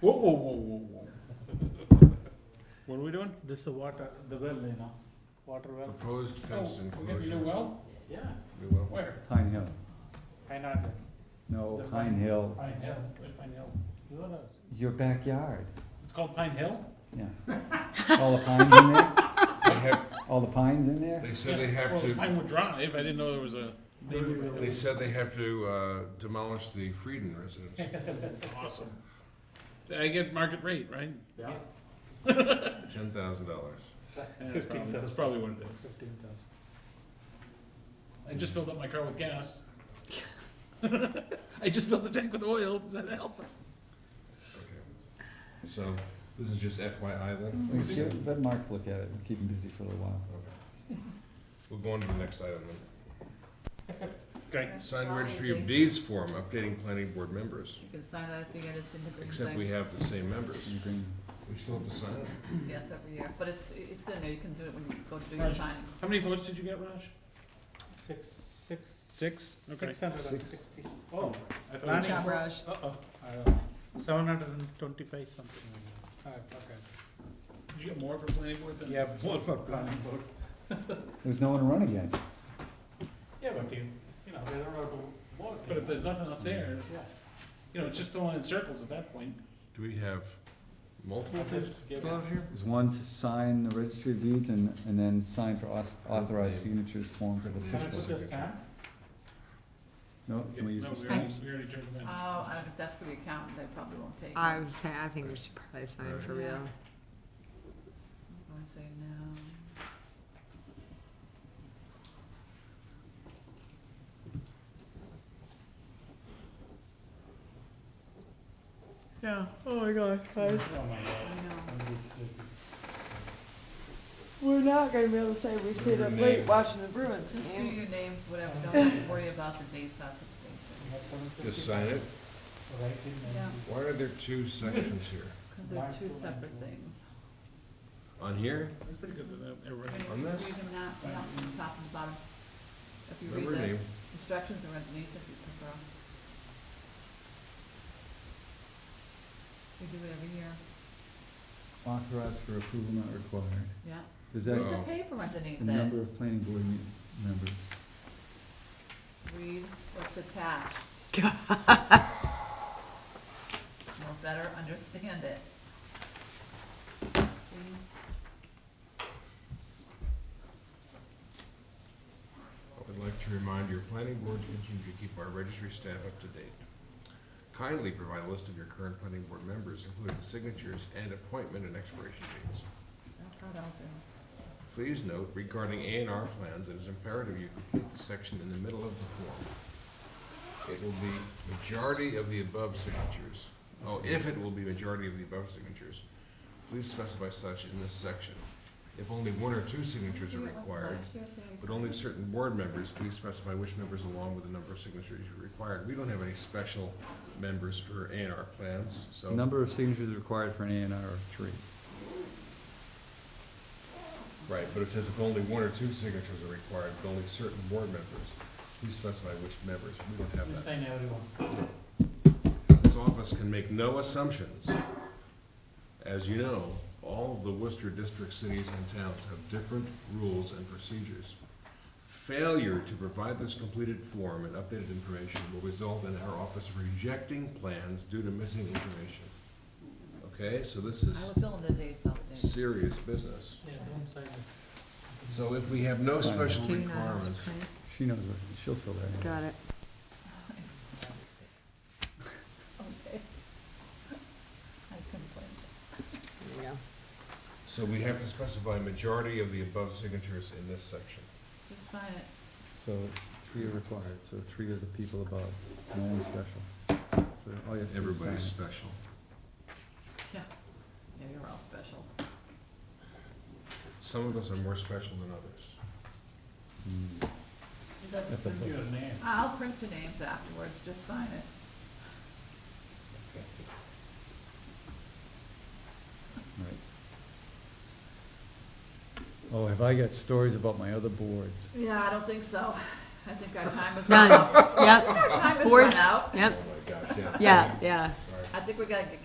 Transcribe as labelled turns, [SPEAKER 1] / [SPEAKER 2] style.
[SPEAKER 1] Whoa, whoa, whoa, whoa, whoa. What are we doing?
[SPEAKER 2] This is water, the well, you know, water well.
[SPEAKER 3] Proposed fenced
[SPEAKER 1] Oh, We're getting a new
[SPEAKER 3] enclosure.
[SPEAKER 1] well?
[SPEAKER 2] Yeah.
[SPEAKER 3] New well.
[SPEAKER 1] Where?
[SPEAKER 4] Pine Hill,
[SPEAKER 2] I not,
[SPEAKER 4] no, Pine Hill,
[SPEAKER 1] Pine Hill, where's Pine Hill?
[SPEAKER 2] you know,
[SPEAKER 4] your backyard,
[SPEAKER 1] It's called Pine Hill?
[SPEAKER 4] yeah. All the pines in there,
[SPEAKER 3] They have,
[SPEAKER 4] all the pines in there?
[SPEAKER 3] they said they
[SPEAKER 1] Yeah,
[SPEAKER 3] have
[SPEAKER 1] well, it's
[SPEAKER 3] to,
[SPEAKER 1] Pinewood Drive, I didn't know there was a.
[SPEAKER 3] they said they have to uh, demolish the Frieden residence.
[SPEAKER 1] Awesome. I get market rate, right?
[SPEAKER 2] yeah,
[SPEAKER 3] Ten thousand dollars.
[SPEAKER 1] Yeah, that's probably- That's probably what it is.
[SPEAKER 2] fifteen thousand.
[SPEAKER 1] I just filled up my car with gas. I just filled the tank with oil, does that help?
[SPEAKER 3] Okay. So, this is just FYI then?
[SPEAKER 4] We should- Let Mark look at it, and keep him busy for a little while.
[SPEAKER 3] Okay. We'll go on to the next item then.
[SPEAKER 1] Okay.
[SPEAKER 3] Sign registry of deeds form, updating planning board members,
[SPEAKER 5] You can sign that at the end, it's in the green
[SPEAKER 3] except we
[SPEAKER 5] thing,
[SPEAKER 3] have the same members.
[SPEAKER 4] You can-
[SPEAKER 3] We still have to sign it.
[SPEAKER 5] yes, every year, but it's, it's in there, you can do it when you go to do your
[SPEAKER 1] Right.
[SPEAKER 5] signing.
[SPEAKER 1] How many votes did you get, Raj?
[SPEAKER 2] Six, six.
[SPEAKER 1] Six? Okay.
[SPEAKER 2] Six hundred and sixty, oh.
[SPEAKER 1] I thought it
[SPEAKER 2] planning
[SPEAKER 1] was-
[SPEAKER 5] job,
[SPEAKER 2] for-
[SPEAKER 5] Raj.
[SPEAKER 2] Uh-oh, I don't- seven hundred and twenty-five something. like that. I forgot.
[SPEAKER 1] Did you get more for planning board than?
[SPEAKER 2] Yeah, more for planning board.
[SPEAKER 4] There's no one to run against.
[SPEAKER 2] Yeah, but you, you know, they don't have to vote.
[SPEAKER 1] But if there's nothing else there,
[SPEAKER 2] Yeah.
[SPEAKER 1] you know, it's just going in circles at that point.
[SPEAKER 3] Do we have multiple
[SPEAKER 2] This is-
[SPEAKER 3] people out here?
[SPEAKER 4] There's one to sign the registry of deeds and, and then sign for aus- authorized signatures form for the
[SPEAKER 2] Can I
[SPEAKER 4] fiscal.
[SPEAKER 2] put this down?
[SPEAKER 4] No, can we use
[SPEAKER 1] No,
[SPEAKER 4] the
[SPEAKER 1] we already-
[SPEAKER 4] stamps?
[SPEAKER 1] We already turned them in.
[SPEAKER 5] Oh, I don't, if that's for the accountant, they probably won't take it.
[SPEAKER 6] I was, saying, I think we should probably sign for
[SPEAKER 5] Yeah.
[SPEAKER 6] real.
[SPEAKER 5] I wanna say no.
[SPEAKER 6] Yeah, oh my gosh,
[SPEAKER 2] Oh my
[SPEAKER 5] I
[SPEAKER 2] God.
[SPEAKER 5] know.
[SPEAKER 6] We're not gonna be able to say we
[SPEAKER 3] stayed up late
[SPEAKER 6] watching the Bruins.
[SPEAKER 5] Just do your names, whatever, don't worry about the dates, I'll put the dates in.
[SPEAKER 3] Just sign it.
[SPEAKER 2] Right in there.
[SPEAKER 3] Why are there two sections here?
[SPEAKER 5] Cause they're two separate things.
[SPEAKER 3] On here?
[SPEAKER 1] That's pretty good that, that,
[SPEAKER 5] Read
[SPEAKER 1] everybody-
[SPEAKER 5] them
[SPEAKER 3] On
[SPEAKER 5] out,
[SPEAKER 3] this?
[SPEAKER 5] not from the top and the bottom. If you
[SPEAKER 3] Remember
[SPEAKER 5] read the
[SPEAKER 3] name?
[SPEAKER 5] instructions, they're underneath if you prefer. We do it every year,
[SPEAKER 4] Authorized for approval not required.
[SPEAKER 5] yeah.
[SPEAKER 4] Is
[SPEAKER 5] Read
[SPEAKER 4] that
[SPEAKER 5] the
[SPEAKER 3] Oh.
[SPEAKER 5] paper
[SPEAKER 4] the
[SPEAKER 5] underneath that.
[SPEAKER 4] number of planning board me- members?
[SPEAKER 5] Read what's attached. You'll better understand it. See?
[SPEAKER 3] I would like to remind your planning board to continue to keep our registry staff up to date. Kindly provide a list of your current planning board members, including signatures and appointment and expiration dates.
[SPEAKER 5] That's what I'll do.
[SPEAKER 3] Please note regarding A and R plans, it is imperative you complete the section in the middle of the form. It will be majority of the above signatures, oh, if it will be majority of the above signatures, please specify such in this section. If only one or two signatures are required, but only certain board members, please specify which members along with the number of signatures you required. We don't have any special members for A and R plans, so.
[SPEAKER 4] Number of signatures required for an A and R are three.
[SPEAKER 3] Right, but it says if only one or two signatures are required, but only certain board members. Please specify which members, we don't
[SPEAKER 2] You
[SPEAKER 3] have that.
[SPEAKER 2] sign everyone.
[SPEAKER 3] This office can make no assumptions. As you know, all of the Worcester district cities and towns have different rules and procedures. Failure to provide this completed form and updated information will result in our office rejecting plans due to missing information. Okay, so this
[SPEAKER 5] I
[SPEAKER 3] is
[SPEAKER 5] will fill in the dates out there.
[SPEAKER 3] serious business.
[SPEAKER 2] Yeah, don't sign it.
[SPEAKER 3] So if we have no
[SPEAKER 4] Sign it.
[SPEAKER 3] special requirements,
[SPEAKER 4] She knows what, she'll fill that in.
[SPEAKER 6] Got it.
[SPEAKER 5] Okay. I complain.
[SPEAKER 6] There you go.
[SPEAKER 3] So we have to specify majority of the above signatures in this section.
[SPEAKER 5] Just sign it.
[SPEAKER 4] So three are required, so three are the people above, no one special. So all you have to do is sign.
[SPEAKER 3] Everybody's special.
[SPEAKER 5] Yeah. Yeah, you're all special.
[SPEAKER 3] Some of us are more special than others.
[SPEAKER 4] Mm. That's a
[SPEAKER 2] Send you a name.
[SPEAKER 5] I'll print your names afterwards, just sign it.
[SPEAKER 4] Right. Oh, have I got stories about my other boards?
[SPEAKER 5] Yeah, I don't think so. I think our time is run
[SPEAKER 6] None,
[SPEAKER 5] out.
[SPEAKER 6] yep,
[SPEAKER 5] Our time is run
[SPEAKER 6] Boards.
[SPEAKER 5] out.
[SPEAKER 3] Oh
[SPEAKER 6] yep,
[SPEAKER 3] my gosh, yeah.
[SPEAKER 6] yeah, yeah.
[SPEAKER 3] Sorry.
[SPEAKER 5] I think we gotta get